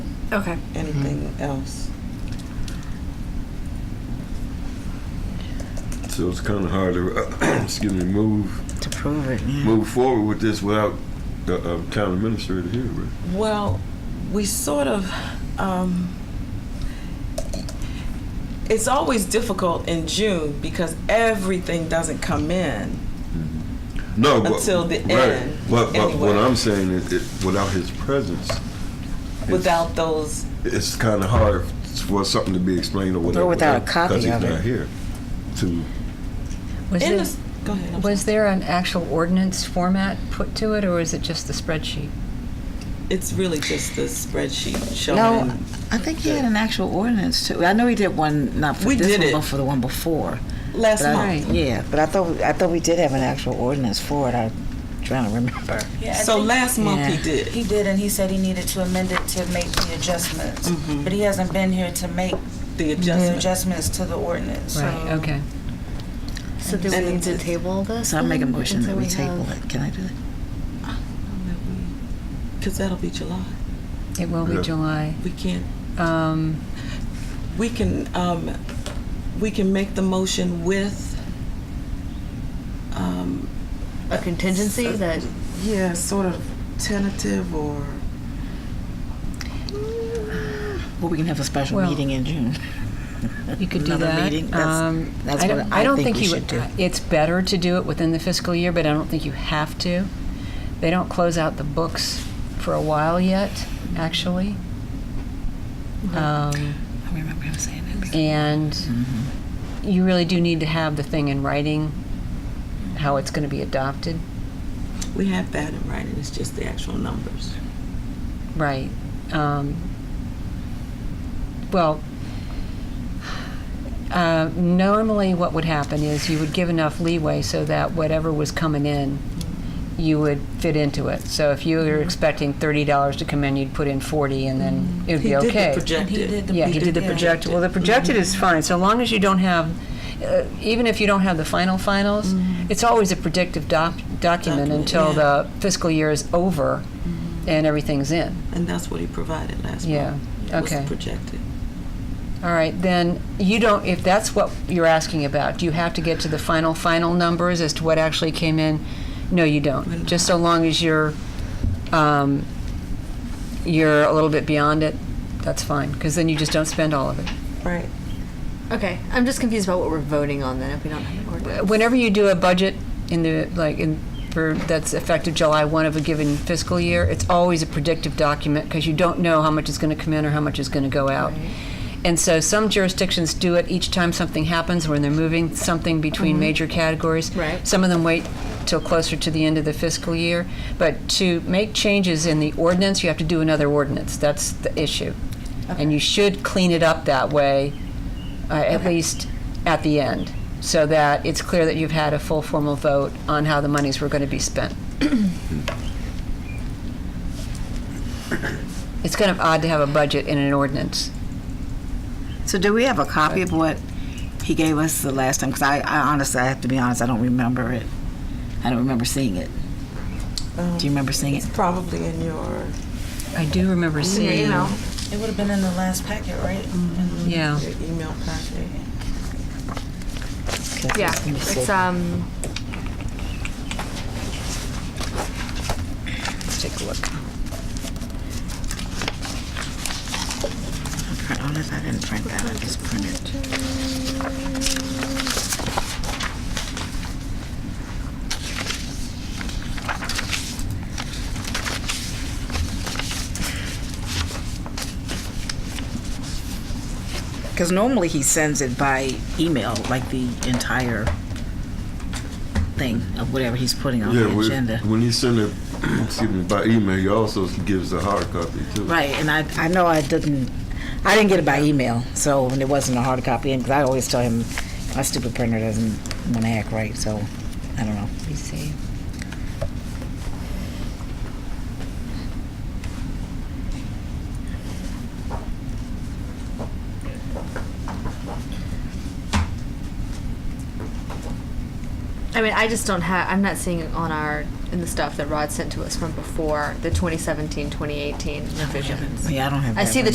Okay. anything else. So it's kind of hard to, uh, excuse me, move, to prove it. move forward with this without the uh, town administrator here, right? Well, we sort of, um, it's always difficult in June because everything doesn't come in. No, but, Until the right. end, But, but anyway. what I'm saying is, it, without his presence, it's- Without those, it's kind of hard for something to be explained or whatever. without a copy because he's of it. not here. To Was in there, the, go ahead. I'm was there an actual ordinance format put to it, or is it just the spreadsheet? sorry. It's really just the spreadsheet showing. No, I think he had an actual ordinance too. I know he did one not for We this did one, it. but for the one before. Last But I- month. Yeah, but I thought I thought we did have an actual ordinance for it. I'm trying to remember. Yeah, I So think last month he Yeah. did. He did, and he said he needed to amend it to make the adjustments, but he hasn't been here to make the the Mm-hmm. adjustment. adjustments to the ordinance, so. Right, okay. So do we And need to it's- table this? So I make a then motion until that we have- table it. Can I do that? Because that'll be July. It will Yeah. be July. We can't, Um, we can, um, we can make the motion with, um, A contingency that, yeah, sort of tentative or, Well, we can have a special Well, meeting in June. You could do Another that. meeting? That's- Um, that's I don't, what I don't think, we you should do. would. uh, It's better to do it within the fiscal year, but I don't think you have to. They don't close out the books for a while yet, actually. Um, I remember him saying Mm-hmm. that. and you really do need to have the thing in writing, how it's going to be adopted. we have that in writing, it's just the actual numbers. Right. Um, well, uh, normally what would happen is you would give enough leeway so that whatever was coming in, you would fit into it. So if you were Mm-hmm. expecting thirty dollars to come in, you'd put in forty, and then it would Mm-hmm. He be did the okay. projected. And he did yeah, he did the yeah. Mm-hmm. projected. Well, the projected is fine, so long as you don't have. Uh, even if you don't have the final finals, it's always a predictive doc- document, Mm-hmm. Document, until yeah. Mm-hmm. the fiscal year is over and everything's in. And that's what he provided last month. Yeah, okay. Was projected. All right, then you don't, if that's what you're asking about, do you have to get to the final, final numbers as to what actually came in? No, you don't. Just so long as you're, um, you're a little bit beyond it, that's fine, because then you just don't spend all of it. Right. okay, I'm just confused about what we're voting on then if we don't have an ordinance. Whenever you do a budget in the, like, in, for, that's effective July one of a given fiscal year, it's always a predictive document, because you don't know how much is gonna come in or how much is gonna go out. And so some jurisdictions do it each time something happens when they're moving something between major categories. Right. Some of them wait till closer to the end of the fiscal year. But to make changes in the ordinance, you have to do another ordinance. That's the issue. And you should clean it up that way, uh, at least at the end, so that it's clear that you've had a full formal vote on how the monies were going to be spent. It's kind of odd to have a budget in an ordinance. So do we have a copy of what he gave us the last time? Because I, I honestly, I have to be honest, I don't remember it. I don't remember seeing it. Do you remember seeing it? It's probably in your, I do remember seeing. you know, It would have been in the last packet, right? Yeah. your email packet. Yeah, Let me see. it's, um, Let's take a look. Print on it. I didn't print that. I just printed. Because normally he sends it by email, like the entire thing of whatever he's putting on the we- agenda. when he send it, excuse me, by email, he also gives a hard copy too. Right, and I, I know I didn't, I didn't get it by email, so and it wasn't a hard copy, and 'cause I always tell him my stupid printer doesn't want to act right, so I don't know. Let me see. I mean, I just don't have, I'm not seeing it on our, in the stuff that Rod sent to us from before, the 2017, 2018 revisions. Yeah, I don't have. I that see the one.